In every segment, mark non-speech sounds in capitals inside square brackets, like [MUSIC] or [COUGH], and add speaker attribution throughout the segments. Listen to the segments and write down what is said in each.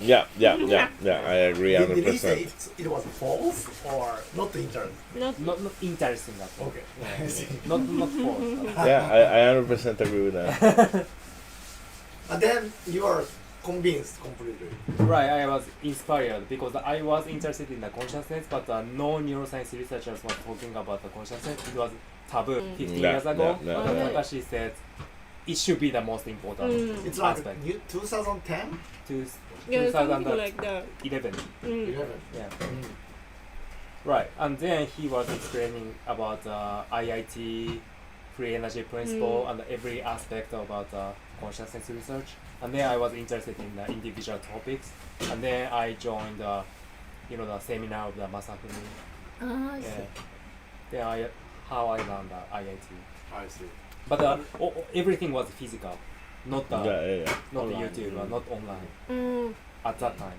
Speaker 1: Yeah, yeah, yeah, yeah. I agree
Speaker 2: Did, did he say
Speaker 1: 100%.
Speaker 2: it, it was false or not intern?
Speaker 3: Not
Speaker 4: Not, not interesting at all.
Speaker 2: Okay. [LAUGHS]
Speaker 4: Not not false.
Speaker 1: Yeah, I, I 100% agree with
Speaker 2: [LAUGHS]
Speaker 1: that.
Speaker 2: and then you are convinced completely.
Speaker 4: right, I was inspired because I was interested in the consciousness, but uh, no neuroscience researchers were talking about the consciousness. It was taboo 15
Speaker 1: Yeah,
Speaker 4: years ago.
Speaker 1: yeah,
Speaker 4: but
Speaker 3: yeah.
Speaker 4: Takashi said it should be the most important
Speaker 3: Mm.
Speaker 2: It's like
Speaker 4: aspect.
Speaker 2: new 2010?
Speaker 4: To
Speaker 3: yeah, something like that.
Speaker 4: 2011.
Speaker 3: Mm.
Speaker 2: 11.
Speaker 4: Yeah.
Speaker 2: Mm.
Speaker 4: Right, and then he was explaining about uh, IIT, free energy principle,
Speaker 3: Mm.
Speaker 4: and every aspect about uh, consciousness research. And then I was interested in the individual topics, and then I joined, uh, you know, the seminar of the Masafumi.
Speaker 3: Ah, I see.
Speaker 4: Yeah. Then I, how I learned the IIT.
Speaker 2: I see.
Speaker 4: But uh, o- o- everything was physical, not uh,
Speaker 1: Yeah, yeah, yeah.
Speaker 4: not
Speaker 5: Online.
Speaker 4: YouTube, uh, not online
Speaker 3: Mm.
Speaker 4: at that
Speaker 3: [LAUGHS]
Speaker 4: time.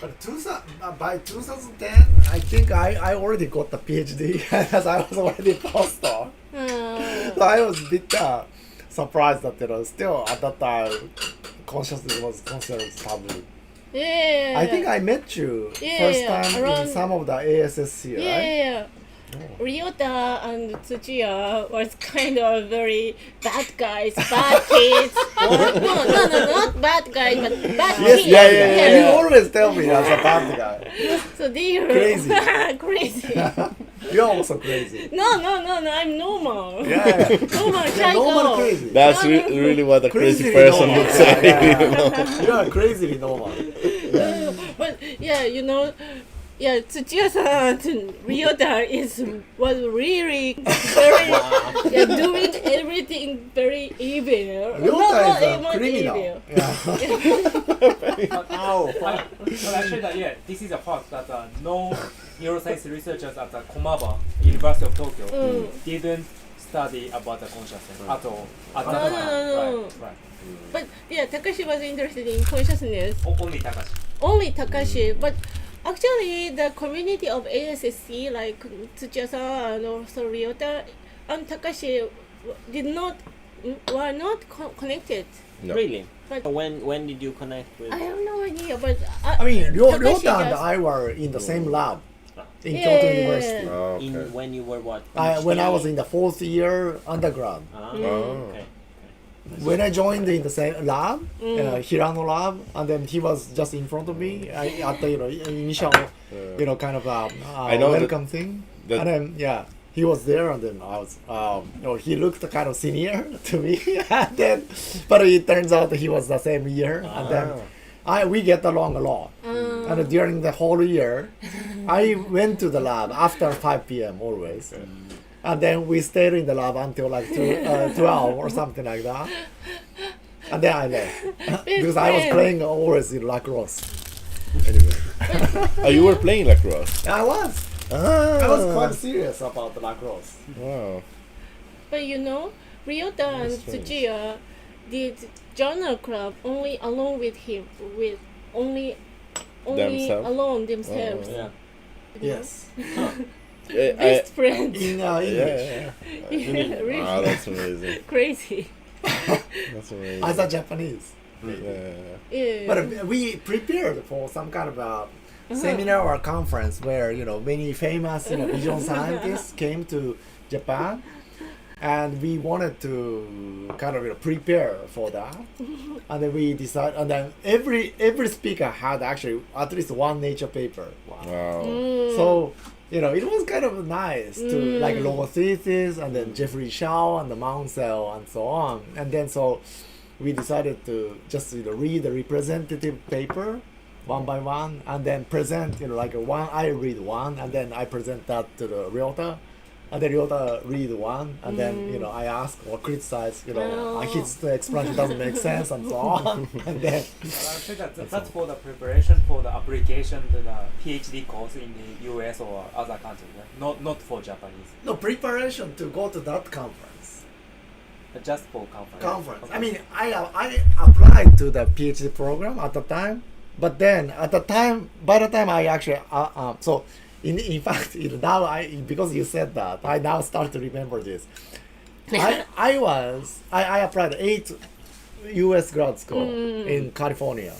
Speaker 2: But 2000, uh, by 2010, I think I, I already got the PhD [LAUGHS] as I was already postdoc.
Speaker 3: Ah.
Speaker 2: So I was a bit uh, surprised that you know still at that time consciousness was considered taboo.
Speaker 3: Yeah, yeah, yeah.
Speaker 2: I think I met you
Speaker 3: Yeah,
Speaker 2: first
Speaker 3: yeah,
Speaker 2: time
Speaker 3: around-
Speaker 2: in some of the ASSC,
Speaker 3: yeah,
Speaker 2: right? Oh.
Speaker 3: yeah, yeah. Ryota and Tsuchiya was kind of very bad guys, bad [LAUGHS] kids. no, no, no, not bad guys, but bad
Speaker 2: Yes,
Speaker 3: kids.
Speaker 2: yeah, yeah, yeah,
Speaker 3: Yeah.
Speaker 2: You always tell me as a bad guy.
Speaker 3: So they were
Speaker 2: Crazy.
Speaker 3: [LAUGHS] crazy.
Speaker 2: [LAUGHS] You're also crazy.
Speaker 3: No, no, no, no, I'm
Speaker 2: [LAUGHS]
Speaker 3: normal. [LAUGHS]
Speaker 2: Yeah, yeah.
Speaker 3: Normal
Speaker 2: You're
Speaker 3: psycho.
Speaker 2: normal crazy.
Speaker 1: That's re- really what a crazy
Speaker 2: Crazily
Speaker 1: person
Speaker 2: normal.
Speaker 1: would say.
Speaker 2: Yeah, yeah,
Speaker 1: you know?
Speaker 2: yeah. [LAUGHS] You are crazily normal.
Speaker 3: But yeah, you know, yeah, uh, Tsuchiya-san and Ryota is was really
Speaker 2: [LAUGHS]
Speaker 3: very yeah, doing everything very evil.
Speaker 2: Ryota
Speaker 3: No, not
Speaker 2: is a
Speaker 3: even
Speaker 2: criminal.
Speaker 3: [LAUGHS] evil.
Speaker 2: Yeah. Ow.
Speaker 4: I, well, actually, that, yeah, this is a fact that uh, no neuroscience researchers at the Komaba University of Tokyo
Speaker 3: Mm.
Speaker 4: didn't study about the consciousness at all. At
Speaker 3: No, no,
Speaker 4: that time.
Speaker 3: no, no.
Speaker 4: Right, right.
Speaker 3: But yeah, Takashi was interested in consciousness.
Speaker 4: O- only Takashi.
Speaker 3: Only
Speaker 2: Mm.
Speaker 3: Takashi, but actually the community of ASSC like Tsuchiya-san and also Ryota and Takashi w- did not mm, were not co- connected.
Speaker 1: No.
Speaker 5: Really?
Speaker 3: But-
Speaker 5: When when did you connect with?
Speaker 3: I have no idea, but uh, I,
Speaker 2: I mean, Ryo-
Speaker 3: Takashi
Speaker 2: Ryota and
Speaker 3: just-
Speaker 2: I were in the same lab in
Speaker 3: Yeah,
Speaker 2: Kyoto
Speaker 3: yeah, yeah,
Speaker 2: University.
Speaker 1: Oh, [LAUGHS]
Speaker 5: in
Speaker 1: okay.
Speaker 5: when you were what?
Speaker 2: I, when I was
Speaker 5: PhD?
Speaker 2: in the fourth year undergrad,
Speaker 5: Ah,
Speaker 1: Mm.
Speaker 5: okay.
Speaker 2: when I joined in the same lab,
Speaker 3: Mm.
Speaker 2: uh, Hirano lab, and then he was just in front of me I, at the you know, initial, you know, kind of um, uh,
Speaker 1: I know that-
Speaker 2: welcome thing.
Speaker 1: that-
Speaker 2: and then yeah, he was there, and then I was, um, you know, he looked kind of senior [LAUGHS] to me, and then, but it turns out he was the same year, and then I we get along a lot. And during the whole year, I went to the lab after 5 p.m. always. And then we stayed in the lab until like two, uh, 12 or something like that. And then I left. because I was
Speaker 3: friend.
Speaker 2: playing always in lacrosse. Anyway.
Speaker 1: Oh, you were playing lacrosse.
Speaker 2: I was.
Speaker 1: Ah,
Speaker 2: I was quite serious about the lacrosse.
Speaker 1: Wow.
Speaker 3: But you know, Ryota and Tsuchiya did journal club only alone with him, with only only
Speaker 1: Themselves? Oh.
Speaker 3: alone themselves.
Speaker 5: Yeah.
Speaker 2: Yes.
Speaker 1: Eh, I-
Speaker 3: Best friends.
Speaker 2: [LAUGHS]
Speaker 1: [LAUGHS]
Speaker 2: In uh,
Speaker 1: yeah,
Speaker 2: English.
Speaker 1: yeah,
Speaker 3: Yeah,
Speaker 1: yeah.
Speaker 3: [LAUGHS] really
Speaker 1: Wow, that's amazing.
Speaker 3: crazy.
Speaker 1: That's amazing.
Speaker 2: As a Japanese.
Speaker 1: Yeah, yeah,
Speaker 3: Yeah.
Speaker 2: But uh, we prepared for some kind of a seminar or conference where you know many famous you know, vision scientists came to Japan, and we wanted to kind of you know, prepare for that. And then we decided, and then every every speaker had actually at least one nature paper.
Speaker 1: yeah. Wow.
Speaker 3: Mm.
Speaker 2: So you know it was kind of nice to like Logothesis and then Jeffrey Shaw and the Mount Cell and so on. And then so we decided to just you know read the representative paper one by one and then present you know like a one I read one and then I present that to the realtor. And then Ryota read one, and then you know I ask or criticize, you know,
Speaker 3: Oh.
Speaker 2: I his explanation doesn't make sense and so on, and then
Speaker 4: Well, actually, that, that's, for the preparation for the application to the PhD course in the US or other country, right? not not for Japanese,
Speaker 2: no preparation to go to that conference.
Speaker 4: but just for conference.
Speaker 2: conference. I
Speaker 4: Okay.
Speaker 2: mean, I I applied to the PhD program at the time, but then at the time, by the time I actually uh, um, so in in [LAUGHS] fact it, now I because you said that I now start to remember this. I I was I, I applied eight U.S. grad school in California.